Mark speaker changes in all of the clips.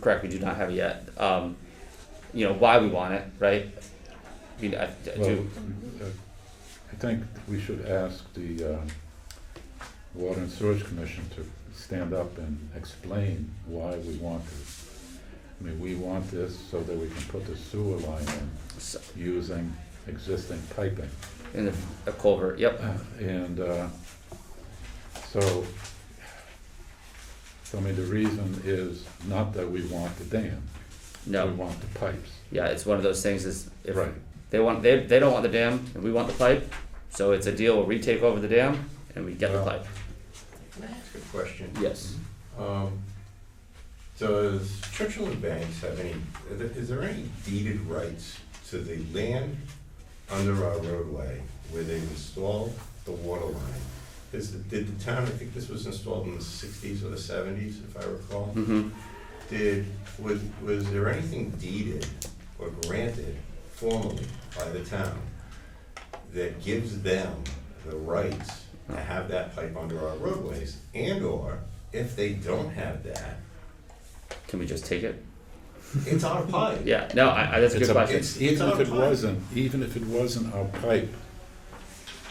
Speaker 1: correct, we do not have it yet, um, you know, why we want it, right? I mean, I, I
Speaker 2: Well,
Speaker 1: do,
Speaker 2: uh, I think we should ask the uh, Water and Sewerage Commission to stand up and explain why we want this. I mean, we want this so that we can put the sewer line in
Speaker 1: so-
Speaker 2: using existing piping.
Speaker 1: in the a culvert, yep,
Speaker 2: Uh, And uh, so, so I mean, the reason is not that we want the dam. We
Speaker 1: no,
Speaker 2: want the pipes.
Speaker 1: yeah, it's one of those things is if
Speaker 2: Right.
Speaker 1: they want, they, they don't want the dam and we want the pipe, so it's a deal where we take over the dam and we get the
Speaker 2: Well-
Speaker 1: pipe,
Speaker 3: Can I ask a question?
Speaker 1: yes.
Speaker 3: Um, Does Churchill and Banks have any, is there any deeded rights to the land under our roadway where they installed the water line? Is, the- did the town, I think this was installed in the sixties or the seventies, if I recall,
Speaker 1: Mm-hmm,
Speaker 3: did, was, was there anything deeded or granted formally by the town that gives them the rights to have that pipe under our roadways? And/or, if they don't have that,
Speaker 1: can we just take it?
Speaker 3: it's our pipe.
Speaker 1: Yeah, no, I, I, that's a
Speaker 2: It's
Speaker 1: good
Speaker 2: a-
Speaker 1: question,
Speaker 3: It's- it's
Speaker 2: Even if
Speaker 3: our
Speaker 2: it
Speaker 3: pipe.
Speaker 2: wasn't, even if it wasn't our pipe,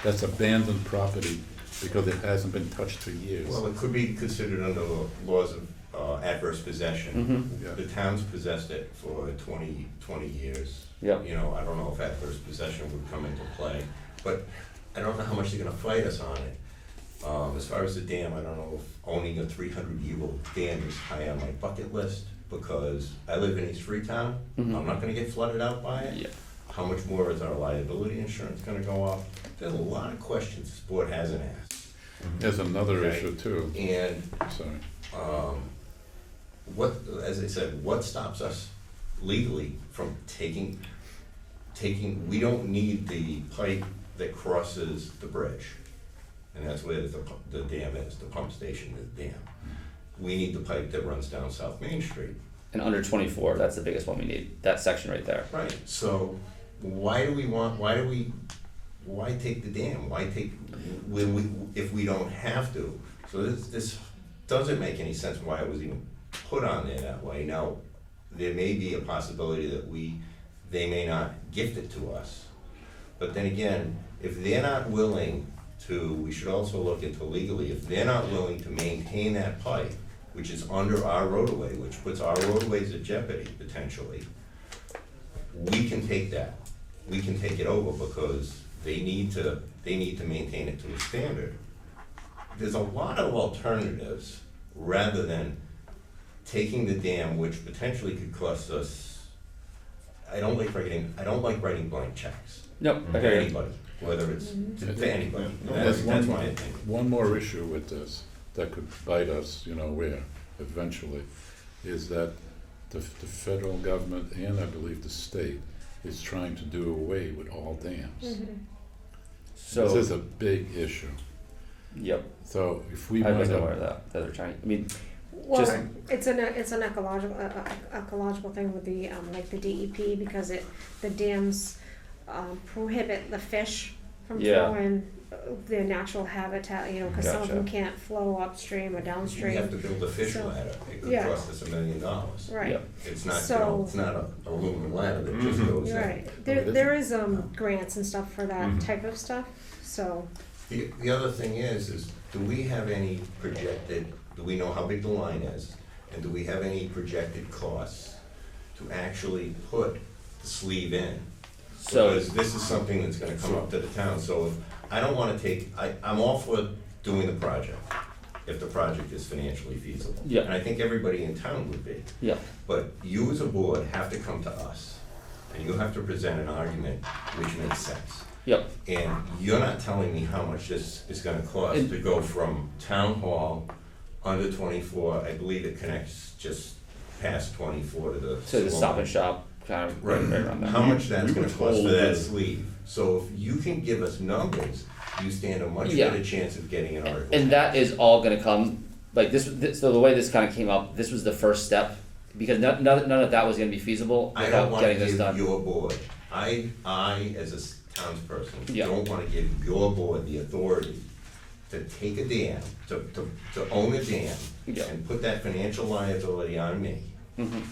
Speaker 2: that's abandoned property because it hasn't been touched for years.
Speaker 3: Well, it could be considered under the laws of uh, adverse possession.
Speaker 2: Mhm. Yeah.
Speaker 3: The town's possessed it for 20, 20 years.
Speaker 1: Yep.
Speaker 3: You know, I don't know if adverse possession would come into play, but I don't know how much they're gonna fight us on it. Um, As far as the dam, I don't know if owning a 300-year-old dam is high on my bucket list, because I live in East Freetown. I'm not gonna get flooded out by it.
Speaker 1: yeah,
Speaker 3: How much more is our liability insurance gonna go up? There's a lot of questions this board hasn't asked.
Speaker 2: There's another
Speaker 3: Okay.
Speaker 2: issue too,
Speaker 3: And
Speaker 2: sorry.
Speaker 3: what, as I said, what stops us legally from taking, taking, we don't need the pipe that crosses the bridge. And that's where the, pu- the dam is, the pump station is dam. We need the pipe that runs down South Main Street.
Speaker 1: and under twenty-four, that's the biggest one we need, that section right there.
Speaker 3: Right. So why do we want, why do we, why take the dam? Why take, when we, if we don't have to? So this, this doesn't make any sense why it was even put on there that way. Now, there may be a possibility that we, they may not gift it to us. But then again, if they're not willing to, we should also look into legally, if they're not willing to maintain that pipe, which is under our roadway, which puts our roadways at jeopardy potentially, we can take that. We can take it over because they need to, they need to maintain it to a standard. There's a lot of alternatives rather than taking the dam, which potentially could cost us, I don't like writing, I don't like writing blank checks
Speaker 1: Nope,
Speaker 3: for
Speaker 1: okay,
Speaker 3: anybody, whether it's to to anybody. That's,
Speaker 2: There's
Speaker 3: that's
Speaker 2: one,
Speaker 3: my opinion.
Speaker 2: one more issue with this that could bite us, you know, where eventually, is that the, f- the federal government and I believe the state is trying to do away with all dams. This
Speaker 1: Mm-hmm. so,
Speaker 2: is a big issue.
Speaker 1: yep,
Speaker 2: So if we
Speaker 1: I
Speaker 2: wind
Speaker 1: wasn't aware
Speaker 2: up,
Speaker 1: of that, that they're trying, I mean, Just-
Speaker 4: Well, it's an, it's an ecological, uh, uh, ecological thing with the, um, like the DEP, because it, the dams, um, prohibit the fish from
Speaker 1: Yeah.
Speaker 4: flowing uh, their natural habitat, you know, cause some of them
Speaker 1: Gotcha.
Speaker 4: can't flow upstream or
Speaker 3: We have
Speaker 4: downstream.
Speaker 3: to build a fish
Speaker 4: So-
Speaker 3: ladder. It could
Speaker 4: Yeah.
Speaker 3: cost us a million dollars.
Speaker 4: Right,
Speaker 1: Yep.
Speaker 3: It's not, you
Speaker 4: So-
Speaker 3: know, it's not a aluminum ladder that just goes in.
Speaker 4: you're right, there,
Speaker 2: it is.
Speaker 4: there is, um, grants and stuff for that
Speaker 1: Mm-hmm.
Speaker 3: Mhm.
Speaker 4: type of stuff, so,
Speaker 3: The, the other thing is, is do we have any projected, do we know how big the line is? And do we have any projected costs to actually put the sleeve in?
Speaker 1: so,
Speaker 3: Because this is something that's gonna come up to the town, so if, I don't wanna take, I, I'm all for doing the project, if the project is financially feasible.
Speaker 1: Yeah.
Speaker 3: And I think everybody in town would be.
Speaker 1: yeah,
Speaker 3: But you as a board have to come to us, and you have to present an argument which makes sense.
Speaker 1: yep,
Speaker 3: And you're not telling me how much this is gonna cost to go from town hall under twenty-four, I believe it connects just past twenty-four to the.
Speaker 1: to the stop and
Speaker 3: salon.
Speaker 1: shop, kind of, right,
Speaker 3: Right,
Speaker 1: right around there.
Speaker 3: how much that's gonna cost for
Speaker 5: that-
Speaker 3: that sleeve, so if you can give us numbers, you stand a much
Speaker 1: Yeah.
Speaker 3: better chance of getting an article.
Speaker 1: and that is all going to come like this, this so the way this kind of came up this was the first step because none, none, none of that was going to be feasible
Speaker 3: I
Speaker 1: without
Speaker 3: don't wanna
Speaker 1: getting this
Speaker 3: give
Speaker 1: done
Speaker 3: your board, I, I as a s- townsperson,
Speaker 1: Yeah.
Speaker 3: don't wanna give your board the authority to take a dam, to, to, to own a dam,
Speaker 1: Yeah.
Speaker 3: and put that financial liability on me.
Speaker 1: Mhm.